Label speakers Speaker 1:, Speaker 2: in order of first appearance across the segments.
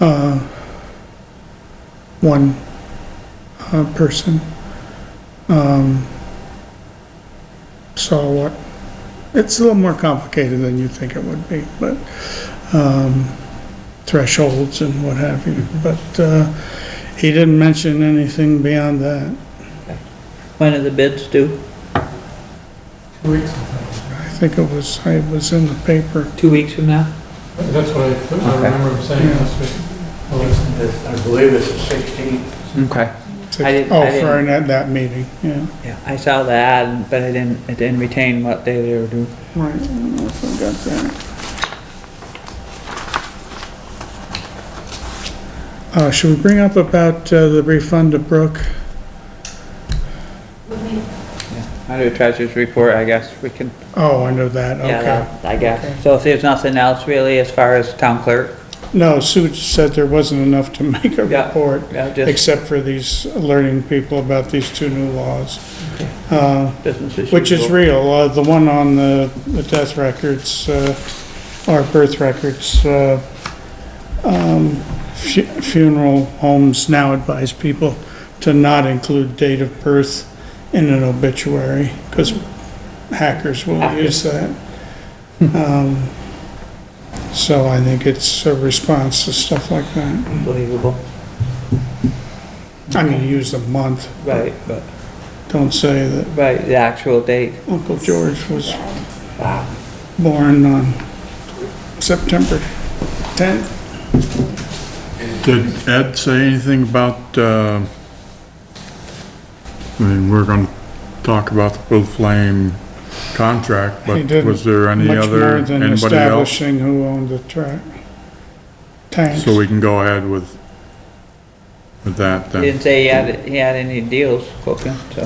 Speaker 1: uh, one uh, person. Um, So what, it's a little more complicated than you think it would be, but um, thresholds and what have you,
Speaker 2: Mm-hmm.
Speaker 1: but uh, he didn't mention anything beyond that.
Speaker 2: When are the bids due?
Speaker 3: Two weeks.
Speaker 1: I think it was, it was in the paper.
Speaker 2: Two weeks from now?
Speaker 3: That's what I, I
Speaker 2: Okay.
Speaker 3: remember him saying last week. Well, it's-
Speaker 4: I believe it's the 16th.
Speaker 2: Okay. I didn't- I
Speaker 1: Oh, for
Speaker 2: didn't-
Speaker 1: that, that meeting, yeah.
Speaker 2: Yeah, I saw the ad, but I didn't, I didn't retain what day they were due.
Speaker 1: Right, I don't know if I got that. Uh, should we bring up about uh, the refund to Brooke?
Speaker 2: Under the treasurer's report, I guess we can,
Speaker 1: Oh, under that,
Speaker 2: yeah,
Speaker 1: okay.
Speaker 2: that- I guess. So if there's nothing else really as far as town clerk,
Speaker 1: No, Sue said there wasn't enough to make a
Speaker 2: Yeah.
Speaker 1: report,
Speaker 2: yeah, just
Speaker 1: except for these, alerting people about these two new laws. Uh,
Speaker 2: business as
Speaker 1: Which is
Speaker 2: usual.
Speaker 1: real, uh, the one on the, the death records, uh, or birth records, uh, um, fu- funeral homes now advise people to not include date of birth in an obituary, because hackers will use that. Um, So I think it's a response to stuff like that.
Speaker 2: Unbelievable,
Speaker 1: I mean, use the month,
Speaker 2: right, but,
Speaker 1: don't say that
Speaker 2: right, the actual date.
Speaker 1: Uncle George was born on September 10th.
Speaker 5: Did Ed say anything about, uh, I mean, we're gonna talk about the Blue Flame contract,
Speaker 1: He
Speaker 5: but
Speaker 1: didn't.
Speaker 5: was there any
Speaker 1: Much
Speaker 5: other,
Speaker 1: more than
Speaker 5: anybody else?
Speaker 1: establishing who owned the track. Tanks.
Speaker 5: So we can go ahead with, with that
Speaker 2: He
Speaker 5: then.
Speaker 2: didn't say he had, he had any deals cooking, so.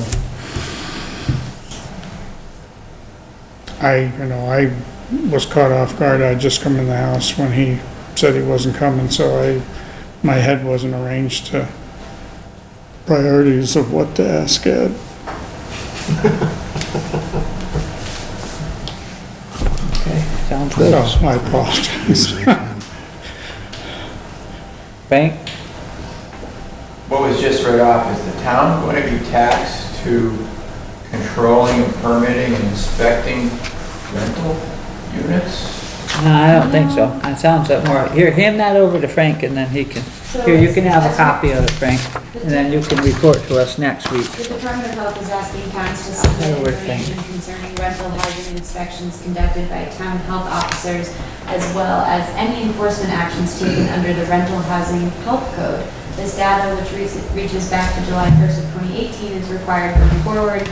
Speaker 1: I, you know, I was caught off guard. I'd just come in the house when he said he wasn't coming, so I, my head wasn't arranged to priorities of what to ask Ed.
Speaker 2: Okay, sounds
Speaker 1: So
Speaker 2: good.
Speaker 1: I apologize.
Speaker 2: Bank,
Speaker 4: What was just read off, is the town going to be taxed to controlling and permitting and inspecting rental units?
Speaker 2: no, I don't think so, that sounds like more, here, hand that over to Frank and then he can,
Speaker 6: So
Speaker 2: here, you can
Speaker 6: it's-
Speaker 2: have a copy of it, Frank, and then you can report to us next week.
Speaker 6: The Department of Health is asking towns to
Speaker 2: I
Speaker 6: submit
Speaker 2: would think.
Speaker 6: information concerning rental housing inspections conducted by town health officers, as well as any enforcement actions taken under the rental housing health code. This data, which re- reaches back to July 1st of 2018, is required going forward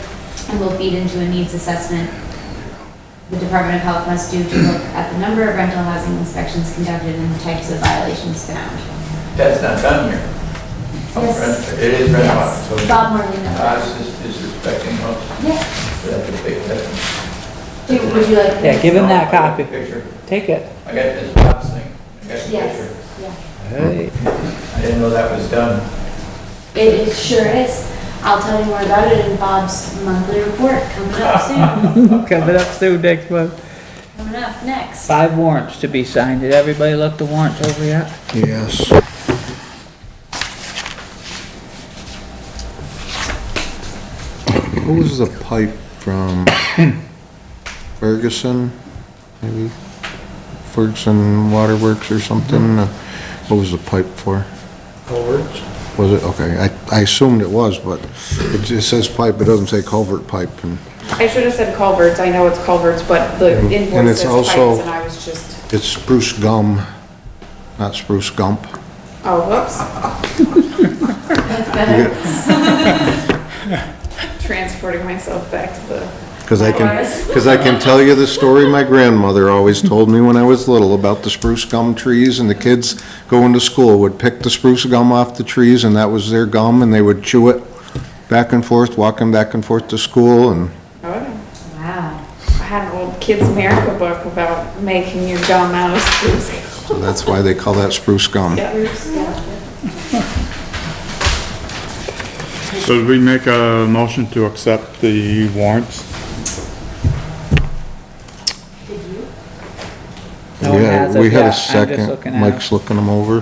Speaker 6: and will feed into a needs assessment the Department of Health must do to look at the number of rental housing inspections conducted and the types of violations found.
Speaker 4: That's not done here. Oh,
Speaker 6: Yes.
Speaker 4: It is rental, so uh,
Speaker 6: Yes, Bob Morley knows.
Speaker 4: us is disrespecting us.
Speaker 6: Yes.
Speaker 4: oh, That's a big, that's.
Speaker 6: Do, would you like?
Speaker 2: Yeah, give him that
Speaker 4: I got the
Speaker 2: copy.
Speaker 4: Picture.
Speaker 2: Take it.
Speaker 4: I got this box thing. I got the picture.
Speaker 6: Yes, yeah.
Speaker 4: I didn't know that was done.
Speaker 6: It, it sure is. I'll tell you more about it in Bob's monthly report coming up soon.
Speaker 2: Coming up soon next month.
Speaker 6: Coming up next.
Speaker 2: Five warrants to be signed. Did everybody look the warrants over yet?
Speaker 7: Yes. Who was the pipe from Ferguson, maybe? Ferguson Waterworks or something? Uh, What was the pipe for?
Speaker 3: Culverts.
Speaker 7: Was it, okay, I, I assumed it was, but it just says pipe, it doesn't say culvert pipe. and
Speaker 8: I should have said culverts, I know it's culverts, but the
Speaker 7: And- and
Speaker 8: invoice
Speaker 7: it's
Speaker 8: says
Speaker 7: also-
Speaker 8: pipes, and I was just,
Speaker 7: It's spruce gum, not spruce gump.
Speaker 8: oh, whoops,
Speaker 6: That's better.
Speaker 8: transporting myself back to the,
Speaker 7: Because I can, because I can tell you the story my grandmother always told me when I was little about the spruce gum trees, and the kids going to school would pick the spruce gum off the trees, and that was their gum, and they would chew it back and forth, walking back and forth to school, and
Speaker 8: oh,
Speaker 6: Wow.
Speaker 8: I had an old Kids America book about making your gum out of spruce.
Speaker 7: so that's why they call that spruce gum.
Speaker 8: Yeah.
Speaker 5: So did we make a motion to accept the warrants?
Speaker 6: Did you?
Speaker 2: No one
Speaker 7: Yeah,
Speaker 2: has it
Speaker 7: we had
Speaker 2: yet.
Speaker 7: a
Speaker 2: I'm just
Speaker 7: second.
Speaker 2: looking at it.
Speaker 7: Mike's looking them over.